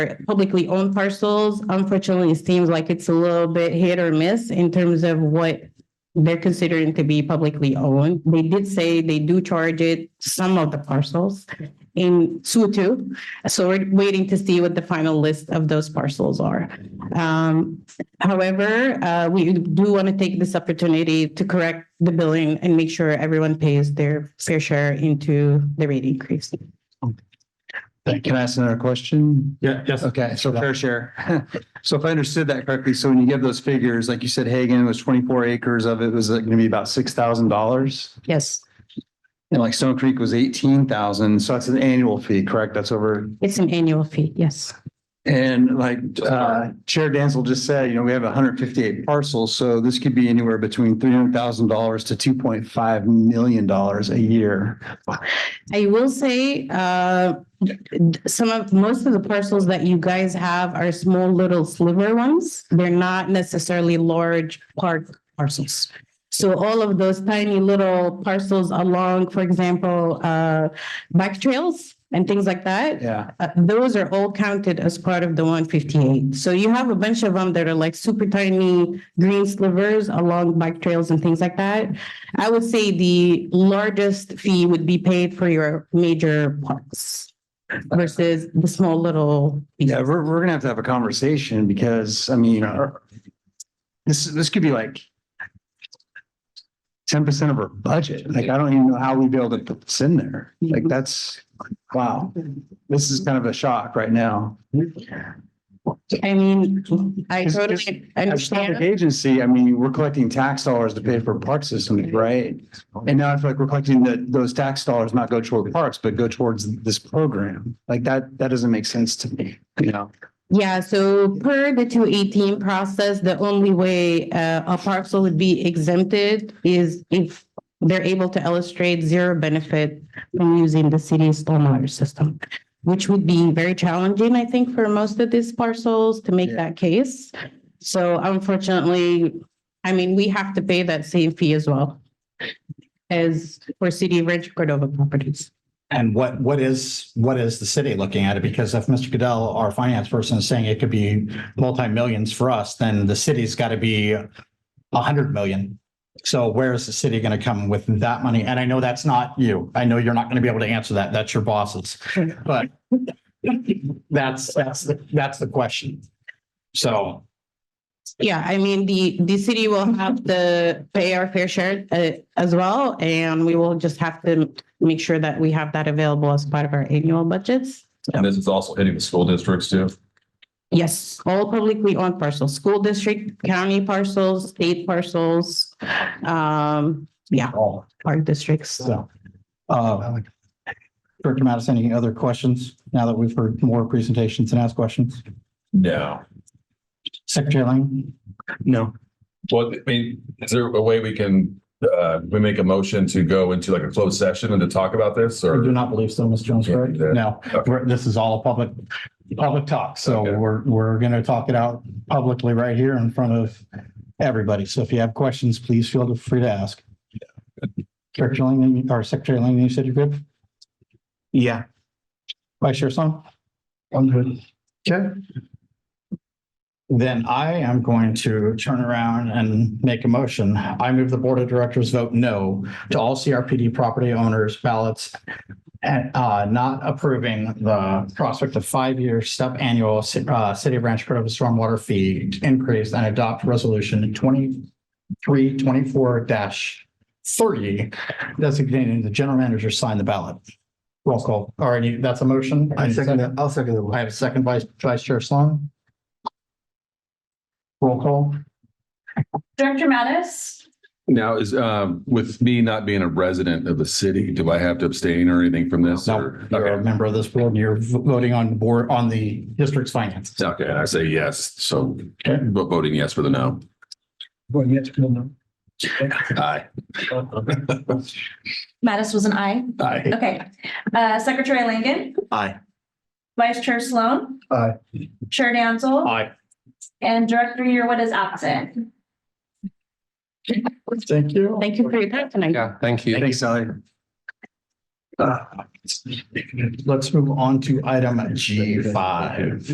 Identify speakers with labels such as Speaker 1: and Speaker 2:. Speaker 1: publicly owned parcels, unfortunately, it seems like it's a little bit hit or miss in terms of what they're considering to be publicly owned. They did say they do charge it, some of the parcels in Sutu. So we're waiting to see what the final list of those parcels are. Um, however, uh, we do want to take this opportunity to correct the billing and make sure everyone pays their fair share into the rate increase.
Speaker 2: Thank you. Can I ask another question?
Speaker 3: Yeah, yes.
Speaker 2: Okay, so fair share. So if I understood that correctly, so when you give those figures, like you said, Hagen was twenty-four acres of it was going to be about six thousand dollars.
Speaker 1: Yes,
Speaker 2: And like Stone Creek was eighteen thousand. So that's an annual fee, correct? That's over.
Speaker 1: it's an annual fee, yes.
Speaker 2: And like uh, Chair Danzel just said, you know, we have hundred fifty-eight parcels. So this could be anywhere between three hundred thousand dollars to two point five million dollars a year.
Speaker 1: I will say, uh, some of, most of the parcels that you guys have are small little sliver ones. They're not necessarily large park parcels. So all of those tiny little parcels along, for example, uh, bike trails and things like that.
Speaker 2: Yeah.
Speaker 1: Uh, those are all counted as part of the one fifty-eight. So you have a bunch of them that are like super tiny green slivers along bike trails and things like that. I would say the largest fee would be paid for your major parks versus the small little. pieces.
Speaker 2: Yeah, we're, we're gonna have to have a conversation because, I mean, our- this, this could be like ten percent of our budget. Like, I don't even know how we'd be able to put this in there. Like, that's, wow. This is kind of a shock right now.
Speaker 1: I mean, I
Speaker 2: Just-
Speaker 1: totally
Speaker 2: As a public
Speaker 1: understand.
Speaker 2: agency, I mean, we're collecting tax dollars to pay for park systems, right? And now I feel like we're collecting that, those tax dollars not go toward parks, but go towards this program. Like, that, that doesn't make sense to me, you know?
Speaker 1: Yeah, so per the two eighteen process, the only way uh, a parcel would be exempted is if they're able to illustrate zero benefit from using the city's stormwater system, which would be very challenging, I think, for most of these parcels to make
Speaker 2: Yeah.
Speaker 1: that case. So unfortunately, I mean, we have to pay that same fee as well as for City of Rancho Cordova properties.
Speaker 3: And what, what is, what is the city looking at it? Because if Mr. Goodell, our finance person is saying it could be multi-millions for us, then the city's got to be a hundred million. So where is the city going to come with that money? And I know that's not you. I know you're not going to be able to answer that. That's your bosses. But that's, that's, the- that's the question. So,
Speaker 1: Yeah, I mean, the, the city will have to pay our fair share uh, as well, and we will just have to make sure that we have that available as part of our annual budgets.
Speaker 4: And this is also hitting the school districts too.
Speaker 1: Yes, all publicly owned parcels, school district, county parcels, state parcels, um, yeah,
Speaker 3: oh,
Speaker 1: park districts.
Speaker 3: so. uh, Director Mattis, any other questions now that we've heard more presentations and asked questions?
Speaker 4: No.
Speaker 3: Secretary Lang?
Speaker 2: No.
Speaker 4: Well, I mean, is there a way we can, uh, we make a motion to go into like a closed session and to talk about this
Speaker 3: I do
Speaker 4: or?
Speaker 3: not believe so, Ms. Jones,
Speaker 4: Yeah,
Speaker 3: correct?
Speaker 4: yeah.
Speaker 3: No,
Speaker 4: Okay.
Speaker 3: we're- this is all public, public talk. So
Speaker 4: Okay.
Speaker 3: we're, we're going to talk it out publicly right here in front of everybody. So if you have questions, please feel free to ask. Director Lang, or Secretary Lang, you said you're good?
Speaker 2: Yeah.
Speaker 3: Vice Chair Song?
Speaker 2: I'm good.
Speaker 3: Okay. Then I am going to turn around and make a motion. I move the Board of Directors vote no to all CRPD property owners ballots and uh, not approving the prospect of five-year step annual ci- uh, City of Rancho Cordova stormwater fee increase and adopt resolution twenty-three twenty-four thirty designating the general manager sign the ballot. Roll call. All right, that's a motion.
Speaker 2: I'll second the
Speaker 3: I have a second vice, vice chair Sloan. Roll call.
Speaker 5: Director Mattis?
Speaker 4: Now is, um, with me not being a resident of the city, do I have to abstain or anything from this?
Speaker 3: No,
Speaker 4: or-
Speaker 3: you're a
Speaker 4: Okay,
Speaker 3: member of this board and you're v- voting on board, on the district's finances.
Speaker 4: okay, and I say yes, so
Speaker 3: Okay.
Speaker 4: but voting yes for the no. Aye.
Speaker 5: Mattis was an aye.
Speaker 3: Aye.
Speaker 5: Okay. Uh, Secretary Langen?
Speaker 3: Aye.
Speaker 5: Vice Chair Sloan?
Speaker 3: Aye.
Speaker 5: Chair Danzel?
Speaker 3: Aye.
Speaker 5: And Director Yearwood is absent.
Speaker 3: Thank you.
Speaker 1: Thank you for your time tonight.
Speaker 4: Yeah, thank you.
Speaker 2: Thanks, Sally.
Speaker 3: Uh, Let's move on to item G five.